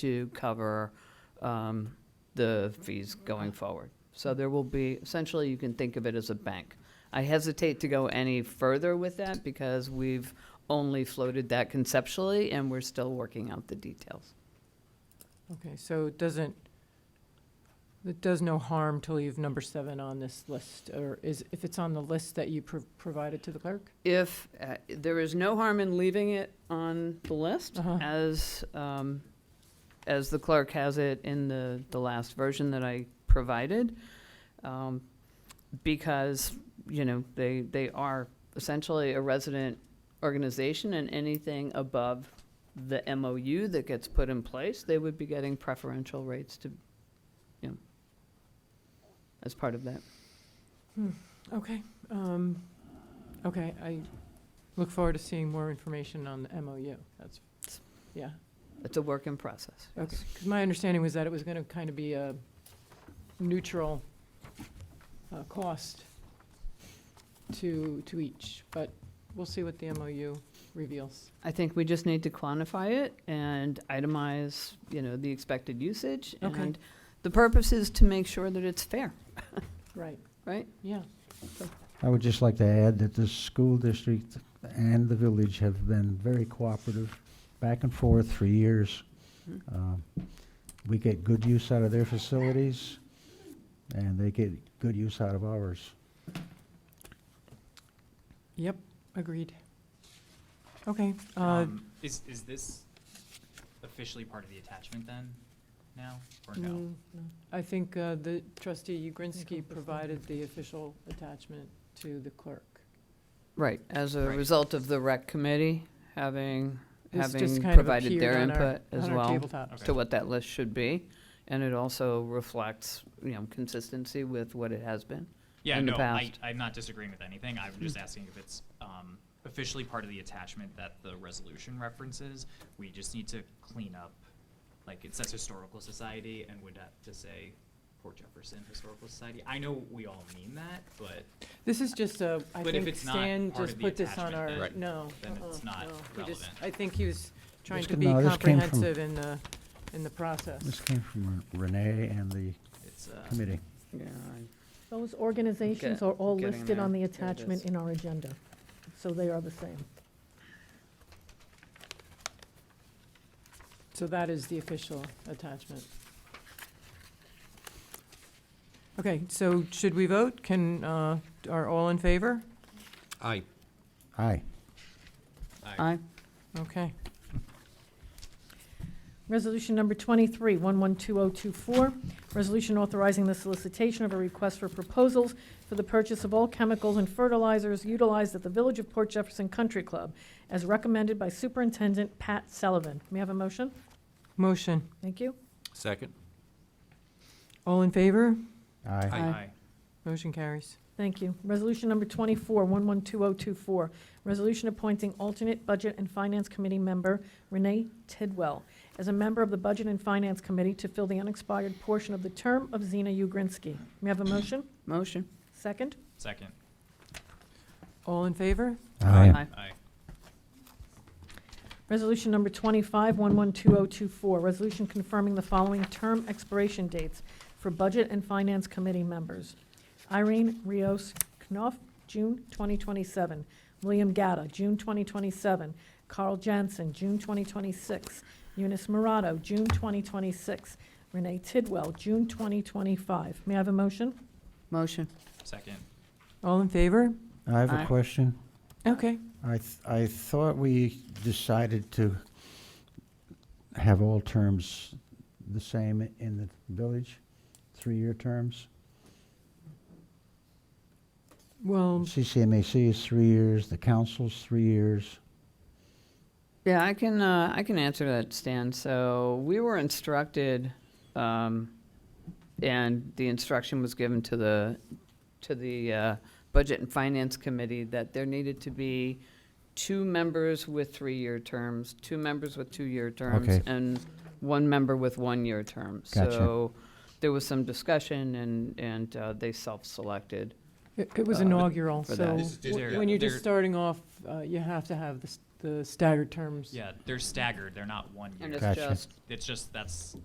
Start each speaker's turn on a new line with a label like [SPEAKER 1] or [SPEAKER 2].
[SPEAKER 1] to cover um, the fees going forward. So there will be, essentially, you can think of it as a bank. I hesitate to go any further with that because we've only floated that conceptually, and we're still working out the details.
[SPEAKER 2] Okay, so it doesn't, it does no harm to leave number seven on this list, or is, if it's on the list that you pro- provided to the clerk?
[SPEAKER 1] If, uh, there is no harm in leaving it on the list
[SPEAKER 2] Uh-huh.
[SPEAKER 1] as, um, as the clerk has it in the, the last version that I provided. um, Because, you know, they, they are essentially a resident organization and anything above the MOU that gets put in place, they would be getting preferential rates to, you know, as part of that.
[SPEAKER 2] Okay, um, okay, I look forward to seeing more information on the MOU, that's, yeah.
[SPEAKER 1] It's a work in process.
[SPEAKER 2] Okay, because my understanding was that it was going to kind of be a neutral uh, cost to, to each, but we'll see what the MOU reveals.
[SPEAKER 1] I think we just need to quantify it and itemize, you know, the expected usage.
[SPEAKER 2] Okay.
[SPEAKER 1] And the purpose is to make sure that it's fair,
[SPEAKER 2] Right.
[SPEAKER 1] right?
[SPEAKER 2] Yeah,
[SPEAKER 3] I would just like to add that the school district and the village have been very cooperative, back and forth for years.
[SPEAKER 1] Mhm.
[SPEAKER 3] Um, We get good use out of their facilities, and they get good use out of ours.
[SPEAKER 2] yep, agreed. Okay, uh,
[SPEAKER 4] Um, Is, is this officially part of the attachment then, now, or no?
[SPEAKER 2] mm, I think uh, the trustee Ugrinsky provided the official attachment to the clerk.
[SPEAKER 1] Right, as a
[SPEAKER 4] Right.
[SPEAKER 1] result of the rec committee having,
[SPEAKER 2] This just
[SPEAKER 1] having
[SPEAKER 2] kind of
[SPEAKER 1] provided their
[SPEAKER 2] appeared on our-
[SPEAKER 1] input as
[SPEAKER 2] On our
[SPEAKER 1] well
[SPEAKER 2] tabletop.
[SPEAKER 4] Okay.
[SPEAKER 1] to what that list should be. And it also reflects, you know, consistency with what it has been.
[SPEAKER 4] Yeah,
[SPEAKER 1] in the
[SPEAKER 4] no, I,
[SPEAKER 1] past. Mm.
[SPEAKER 4] I'm not disagreeing with anything, I'm just asking if it's, um, officially part of the attachment that the resolution references. We just need to clean up, like, it says Historical Society and would have to say Port Jefferson Historical Society. I know we all mean that, but
[SPEAKER 2] This is just a, I
[SPEAKER 4] But if
[SPEAKER 2] think
[SPEAKER 4] it's not
[SPEAKER 2] Stan
[SPEAKER 4] part
[SPEAKER 2] just
[SPEAKER 4] of the
[SPEAKER 2] put this on
[SPEAKER 4] attachment, then-
[SPEAKER 2] our,
[SPEAKER 4] Right.
[SPEAKER 2] no.
[SPEAKER 4] then
[SPEAKER 2] uh-uh,
[SPEAKER 4] it's not
[SPEAKER 2] no. He just-
[SPEAKER 4] relevant.
[SPEAKER 2] I think he was trying
[SPEAKER 3] This
[SPEAKER 2] to
[SPEAKER 3] could-
[SPEAKER 2] be
[SPEAKER 3] no, this came from-
[SPEAKER 2] comprehensive in the, in the process.
[SPEAKER 3] This came from Renee and the
[SPEAKER 4] it's, uh,
[SPEAKER 3] committee.
[SPEAKER 1] Yeah.
[SPEAKER 5] Those organizations
[SPEAKER 1] Okay,
[SPEAKER 5] are all
[SPEAKER 1] getting
[SPEAKER 5] listed on
[SPEAKER 1] there.
[SPEAKER 5] the
[SPEAKER 1] There it
[SPEAKER 5] attachment
[SPEAKER 1] is.
[SPEAKER 5] in our agenda, so they are the same.
[SPEAKER 2] So that is the official attachment. Okay, so should we vote? Can, uh, are all in favor?
[SPEAKER 6] Aye.
[SPEAKER 3] Aye.
[SPEAKER 1] Aye,
[SPEAKER 2] Okay.
[SPEAKER 5] Resolution number 23, 112024, resolution authorizing the solicitation of a request for proposals for the purchase of all chemicals and fertilizers utilized at the Village of Port Jefferson Country Club, as recommended by Superintendent Pat Sullivan. May I have a motion?
[SPEAKER 2] Motion.
[SPEAKER 5] Thank you.
[SPEAKER 6] Second?
[SPEAKER 2] All in favor?
[SPEAKER 3] Aye.
[SPEAKER 1] Aye.
[SPEAKER 4] aye,
[SPEAKER 2] Motion carries.
[SPEAKER 5] Thank you. Resolution number 24, 112024, resolution appointing alternate Budget and Finance Committee member Renee Tidwell as a member of the Budget and Finance Committee to fill the unexpired portion of the term of Zena Ugrinsky. May I have a motion?
[SPEAKER 1] motion.
[SPEAKER 5] Second?
[SPEAKER 4] second,
[SPEAKER 2] All in favor?
[SPEAKER 1] Aye.
[SPEAKER 4] aye,
[SPEAKER 5] Resolution number 25, 112024, resolution confirming the following term expiration dates for Budget and Finance Committee members. Irene Rios Knopf, June 2027. William Gatta, June 2027. Carl Jansen, June 2026. Eunice Murato, June 2026. Renee Tidwell, June 2025. May I have a motion?
[SPEAKER 1] Motion.
[SPEAKER 4] second,
[SPEAKER 2] All in favor?
[SPEAKER 3] I have
[SPEAKER 1] Aye.
[SPEAKER 3] a question.
[SPEAKER 2] Okay.
[SPEAKER 3] I, th- I thought we decided to have all terms the same in the village, three-year terms.
[SPEAKER 2] Well,
[SPEAKER 3] CCMAC is three years, the council's three years.
[SPEAKER 1] Yeah, I can, uh, I can answer that, Stan. So we were instructed, um, and the instruction was given to the, to the, uh, Budget and Finance Committee that there needed to be two members with three-year terms, two members with two-year terms,
[SPEAKER 3] Okay.
[SPEAKER 1] and one member with one-year terms.
[SPEAKER 3] Gotcha.
[SPEAKER 1] So there was some discussion and, and, uh, they self-selected.
[SPEAKER 2] it it was
[SPEAKER 1] Uh,
[SPEAKER 2] inaugural,
[SPEAKER 1] for
[SPEAKER 2] so
[SPEAKER 1] that.
[SPEAKER 6] This is just-
[SPEAKER 2] w-
[SPEAKER 6] yeah,
[SPEAKER 2] when you're
[SPEAKER 4] they're-
[SPEAKER 2] just starting off, uh, you have to have the s- the staggered terms.
[SPEAKER 4] Yeah, they're staggered, they're not one
[SPEAKER 1] And
[SPEAKER 4] year.
[SPEAKER 1] it's
[SPEAKER 3] Gotcha.
[SPEAKER 1] just
[SPEAKER 4] It's just, that's